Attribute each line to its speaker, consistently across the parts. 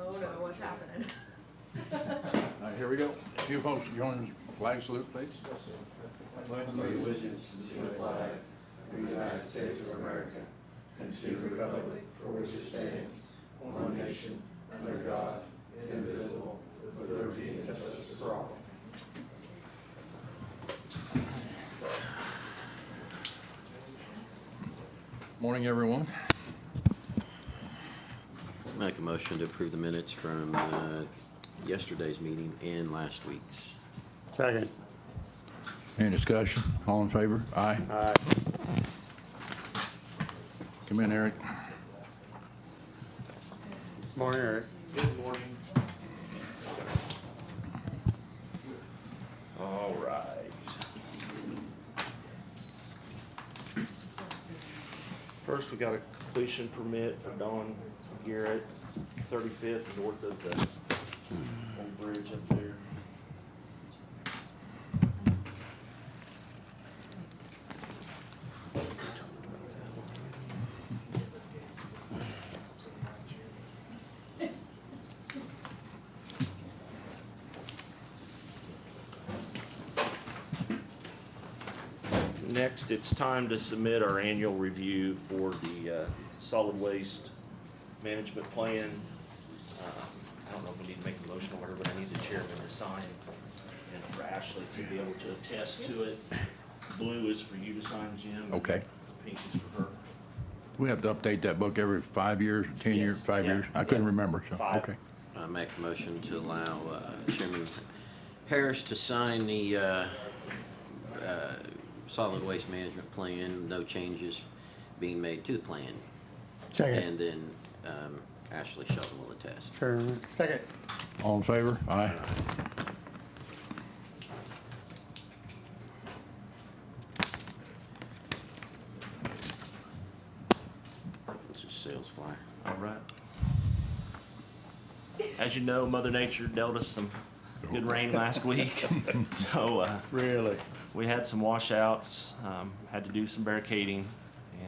Speaker 1: Oh, what's happening.
Speaker 2: All right, here we go. If you folks join flag salute, please. Morning, everyone.
Speaker 3: Make a motion to approve the minutes from uh, yesterday's meeting and last week's.
Speaker 4: Second.
Speaker 2: Any discussion? All in favor? Aye.
Speaker 4: Aye.
Speaker 2: Come in, Eric.
Speaker 4: Morning, Eric.
Speaker 2: All right.
Speaker 5: First, we got a completion permit for Don Garrett, thirty-fifth north of the old bridge up there. Next, it's time to submit our annual review for the uh, solid waste management plan. Uh, I don't know if we need to make a motion or whatever, but I need the chairman to sign and for Ashley to be able to attest to it. Blue is for you to sign, Jim.
Speaker 2: Okay.
Speaker 5: Pink is for her.
Speaker 2: We have to update that book every five years, 10 years,
Speaker 5: Yes,
Speaker 2: five
Speaker 5: yeah,
Speaker 2: years? I couldn't
Speaker 5: yeah.
Speaker 2: remember, so,
Speaker 5: Five.
Speaker 2: okay.
Speaker 3: I make a motion to allow uh, Chairman Harris to sign the uh, uh, solid waste management plan, no changes being made to the plan. And
Speaker 4: Second.
Speaker 3: then um, Ashley Sheldon will attest.
Speaker 4: Chairman. Second.
Speaker 2: All in favor? Aye.
Speaker 3: It's a sales flyer.
Speaker 5: All right. As you know, Mother Nature dealt us some good rain last week, so, uh,
Speaker 4: Really?
Speaker 5: we had some washouts, um, had to do some barricading,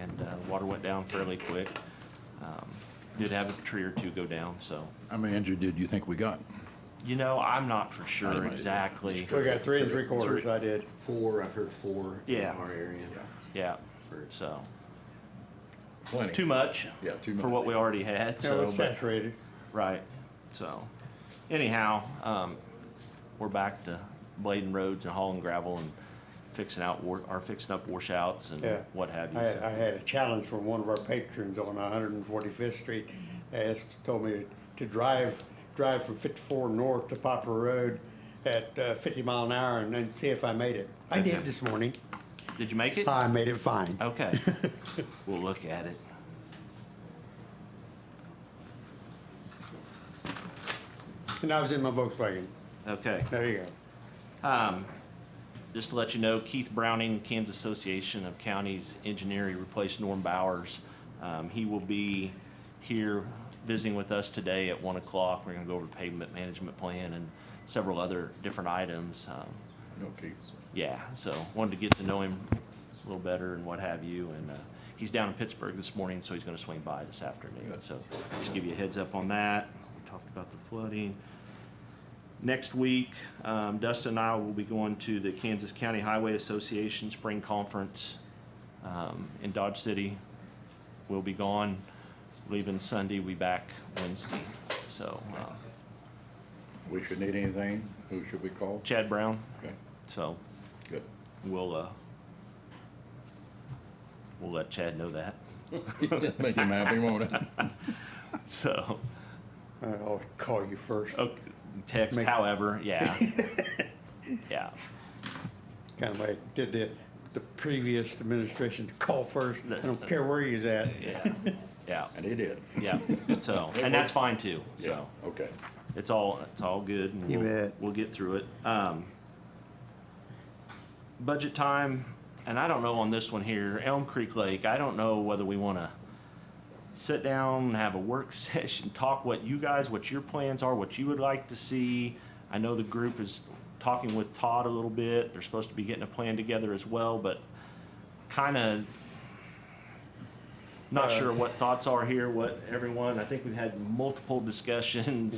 Speaker 5: and, uh, water went down fairly quick. Um, Did have a tree or two go down, so,
Speaker 2: How many injured did you think we got?
Speaker 5: you know, I'm not for
Speaker 2: I
Speaker 5: sure
Speaker 2: don't know.
Speaker 5: exactly.
Speaker 4: We got three and three quarters, I did.
Speaker 3: Four, I've heard four in
Speaker 5: Yeah.
Speaker 3: our area.
Speaker 5: Yeah, so,
Speaker 2: Plenty.
Speaker 5: too much.
Speaker 2: Yeah, too
Speaker 5: For
Speaker 2: much.
Speaker 5: what we already had,
Speaker 4: Yeah, it
Speaker 5: so.
Speaker 4: was
Speaker 5: but-
Speaker 4: saturated.
Speaker 5: Right. So, anyhow, um, we're back to blading roads and hauling gravel and fixing out war, or fixing up washouts and
Speaker 4: Yeah.
Speaker 5: what have you.
Speaker 4: I,
Speaker 5: so.
Speaker 4: I had a challenge from one of our patrons on one hundred and forty-fifth Street. Asked, told me to drive, drive from fifty-four north to Poplar Road at uh, fifty mile an hour and then see if I made it. I did this morning.
Speaker 5: Did you make it?
Speaker 4: I made it fine.
Speaker 5: Okay. we'll look at it.
Speaker 4: And I was in my Volkswagen.
Speaker 5: Okay.
Speaker 4: There you go.
Speaker 5: Um, just to let you know, Keith Browning, Kansas Association of Counties Engineer, he replaced Norm Bowers. Um, he will be here visiting with us today at one o'clock. We're gonna go over the pavement management plan and several other different items. Um,
Speaker 2: No, Keith.
Speaker 5: yeah, so wanted to get to know him a little better and what have you. And uh, he's down in Pittsburgh this morning, so he's going to swing by this afternoon.
Speaker 2: Good.
Speaker 5: So just give you a heads up on that. We talked about the flooding. Next week, um, Dustin and I will be going to the Kansas County Highway Association Spring Conference um, in Dodge City. We'll be gone, leaving Sunday, we back Wednesday. So uh,
Speaker 2: We should need anything? Who should we call?
Speaker 5: Chad Brown,
Speaker 2: Okay,
Speaker 5: so
Speaker 2: good.
Speaker 5: We'll, uh, we'll let Chad know that.
Speaker 2: Make him happy, won't it?
Speaker 5: So,
Speaker 4: I'll call you first.
Speaker 5: oh, text,
Speaker 4: Make-
Speaker 5: however, yeah. Yeah,
Speaker 4: kind of like did the, the previous administration to call first. I don't care where you's at.
Speaker 5: yeah,
Speaker 2: And he did.
Speaker 5: yeah. So, and that's fine too, so.
Speaker 2: Okay.
Speaker 5: It's all, it's all good. and
Speaker 4: You
Speaker 5: we'll-
Speaker 4: bet.
Speaker 5: We'll get through it. Um, budget time, and I don't know on this one here, Elm Creek Lake, I don't know whether we wanna sit down, have a work session, talk what you guys, what your plans are, what you would like to see. I know the group is talking with Todd a little bit. They're supposed to be getting a plan together as well, but kinda
Speaker 4: Uh,
Speaker 5: not sure what thoughts are here, what everyone, I think we've had multiple discussions